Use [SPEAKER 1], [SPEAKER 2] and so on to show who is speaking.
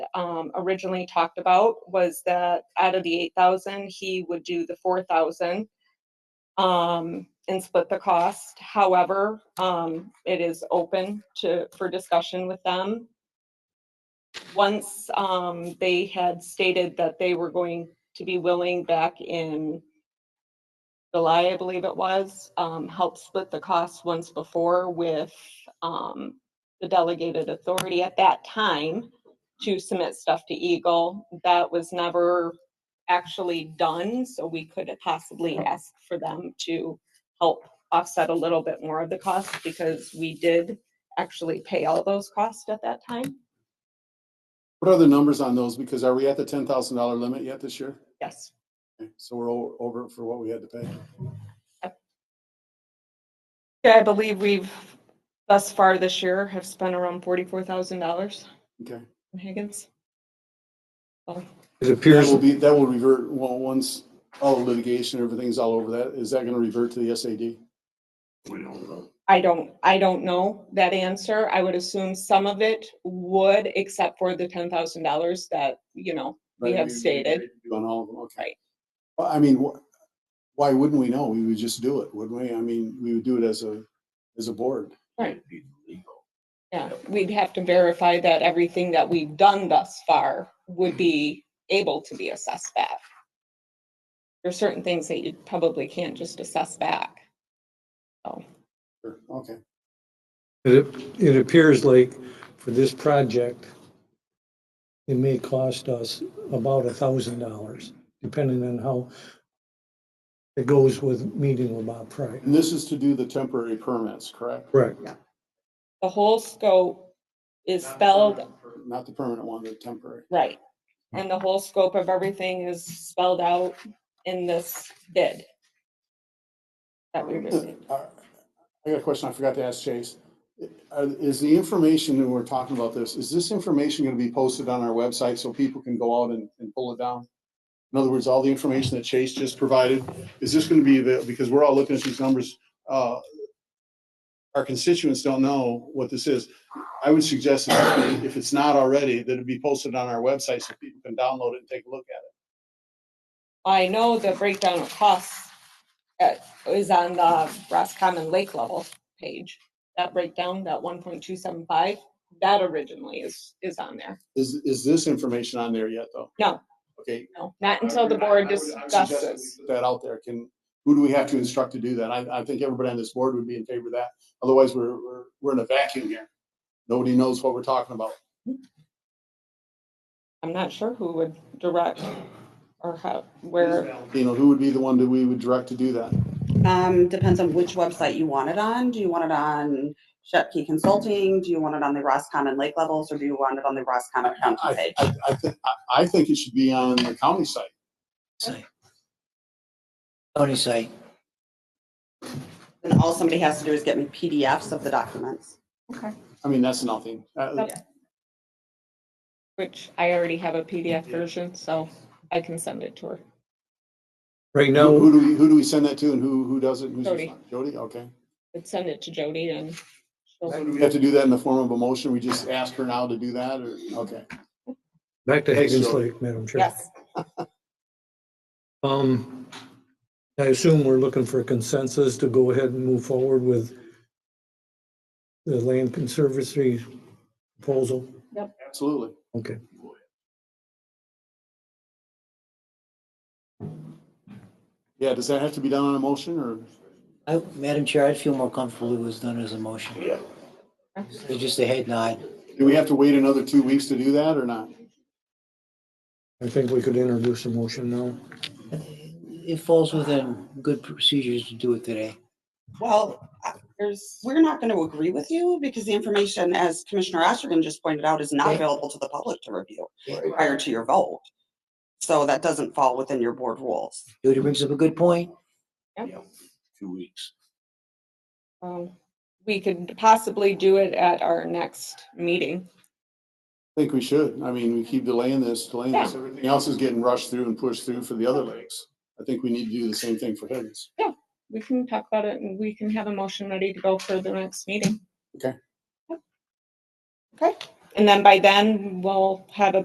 [SPEAKER 1] um, originally talked about was that out of the eight thousand, he would do the four thousand um, and split the cost. However, um, it is open to, for discussion with them. Once, um, they had stated that they were going to be willing back in July, I believe it was, um, help split the cost once before with, um, the delegated authority at that time to submit stuff to Eagle. That was never actually done, so we could possibly ask for them to help offset a little bit more of the cost because we did actually pay all those costs at that time.
[SPEAKER 2] What are the numbers on those? Because are we at the ten thousand dollar limit yet this year?
[SPEAKER 1] Yes.
[SPEAKER 2] Okay, So we're o- over for what we had to pay.
[SPEAKER 1] Yeah, I believe we've thus far this year have spent around forty-four thousand dollars
[SPEAKER 2] Okay.
[SPEAKER 1] in Higgins.
[SPEAKER 3] It
[SPEAKER 2] That
[SPEAKER 3] appears,
[SPEAKER 2] will be, that will revert, well, once all the litigation, everything's all over that, is that gonna revert to the SAD?
[SPEAKER 1] I don't, I don't know that answer. I would assume some of it would, except for the ten thousand dollars that, you know, we
[SPEAKER 2] Right,
[SPEAKER 1] have stated.
[SPEAKER 2] On all of them, okay.
[SPEAKER 1] Right.
[SPEAKER 2] Well, I mean, wh- why wouldn't we know? We would just do it, wouldn't we? I mean, we would do it as a, as a board.
[SPEAKER 1] Yeah, we'd have to verify that everything that we've done thus far would be able to be assessed back. There's certain things that you probably can't just assess back.
[SPEAKER 2] Sure, Okay,
[SPEAKER 3] it it appears like for this project, it may cost us about a thousand dollars, depending on how it goes with meeting with Bob Price.
[SPEAKER 2] and this is to do the temporary permits, correct?
[SPEAKER 3] Correct.
[SPEAKER 1] The whole scope is spelled
[SPEAKER 2] Not the permanent one, the temporary.
[SPEAKER 1] right. And the whole scope of everything is spelled out in this bid. That we received.
[SPEAKER 2] Uh, I got a question I forgot to ask Chase. Uh, Is the information that we're talking about this, is this information going to be posted on our website so people can go out and, and pull it down? In other words, all the information that Chase just provided, is this going to be, avail- because we're all looking at these numbers, uh, our constituents don't know what this is. I would suggest that if it's not already, that it be posted on our website so people can download it and take a look at
[SPEAKER 1] I know the breakdown of costs uh, is on the Roscommon Lake level page. That breakdown, that one point two seven five, that originally is, is on there.
[SPEAKER 2] it. Is, is this information on there yet, though?
[SPEAKER 1] No.
[SPEAKER 2] Okay,
[SPEAKER 1] No, not until the board
[SPEAKER 2] I would- I would- I would suggest that we
[SPEAKER 1] discusses.
[SPEAKER 2] put That out there, can, who do we have to instruct to do that? I, I think everybody on this board would be in favor of that, otherwise we're, we're, we're in a vacuum here. Nobody knows what we're talking about.
[SPEAKER 1] I'm not sure who would direct or how, where,
[SPEAKER 2] You know, who would be the one that we would direct to do that?
[SPEAKER 4] Um, depends on which website you want it on. Do you want it on Shepke Consulting? Do you want it on the Roscommon Lake levels or do you want it on the Roscommon County
[SPEAKER 2] I,
[SPEAKER 4] page?
[SPEAKER 2] I, I, thi- I, I think it should be on the county site.
[SPEAKER 5] site. County site.
[SPEAKER 4] And all somebody has to do is get me PDFs of the documents.
[SPEAKER 2] I mean, that's nothing. Uh,
[SPEAKER 1] Okay. which I already have a PDF version, so I can send it to her.
[SPEAKER 3] Right
[SPEAKER 2] Who
[SPEAKER 3] now,
[SPEAKER 2] who do we, who do we send that to and who, who does it? Who's
[SPEAKER 1] Jody.
[SPEAKER 2] responsible? Jody, okay.
[SPEAKER 1] I'd send it to Jody and
[SPEAKER 2] So
[SPEAKER 1] she'll-
[SPEAKER 2] do we have to do that in the form of a motion? We just ask her now to do that or, okay.
[SPEAKER 3] back to Higgins
[SPEAKER 2] Sure.
[SPEAKER 3] Lake, Madam Chair.
[SPEAKER 1] yes,
[SPEAKER 3] Um, I assume we're looking for consensus to go ahead and move forward with the land conservancy proposal.
[SPEAKER 2] Absolutely.
[SPEAKER 3] Okay.
[SPEAKER 2] Yeah, does that have to be done on a motion or?
[SPEAKER 5] I, Madam Chair, I'd feel more comfortable if it was done as a motion. It's just a head nod.
[SPEAKER 2] Do we have to wait another two weeks to do that or not?
[SPEAKER 3] I think we could introduce a motion now.
[SPEAKER 5] It falls within good procedures to do it today.
[SPEAKER 4] Well,
[SPEAKER 1] there's,
[SPEAKER 4] we're not going to agree with you because the information, as Commissioner Osterman just pointed out, is not
[SPEAKER 5] Right.
[SPEAKER 4] available to the public to review prior to your vote. So that doesn't fall within your board rules.
[SPEAKER 5] Jody brings up a good point.
[SPEAKER 1] Yep.
[SPEAKER 5] Two weeks.
[SPEAKER 1] um, we could possibly do it at our next meeting.
[SPEAKER 2] I think we should. I mean, we keep delaying this, delaying this. Everything else is getting rushed through and pushed through for the other lakes. I think we need to do the same thing for Higgins.
[SPEAKER 1] we can talk about it and we can have a motion ready to go for the next meeting.
[SPEAKER 2] Okay.
[SPEAKER 1] Yep. Okay, and then by then, we'll have a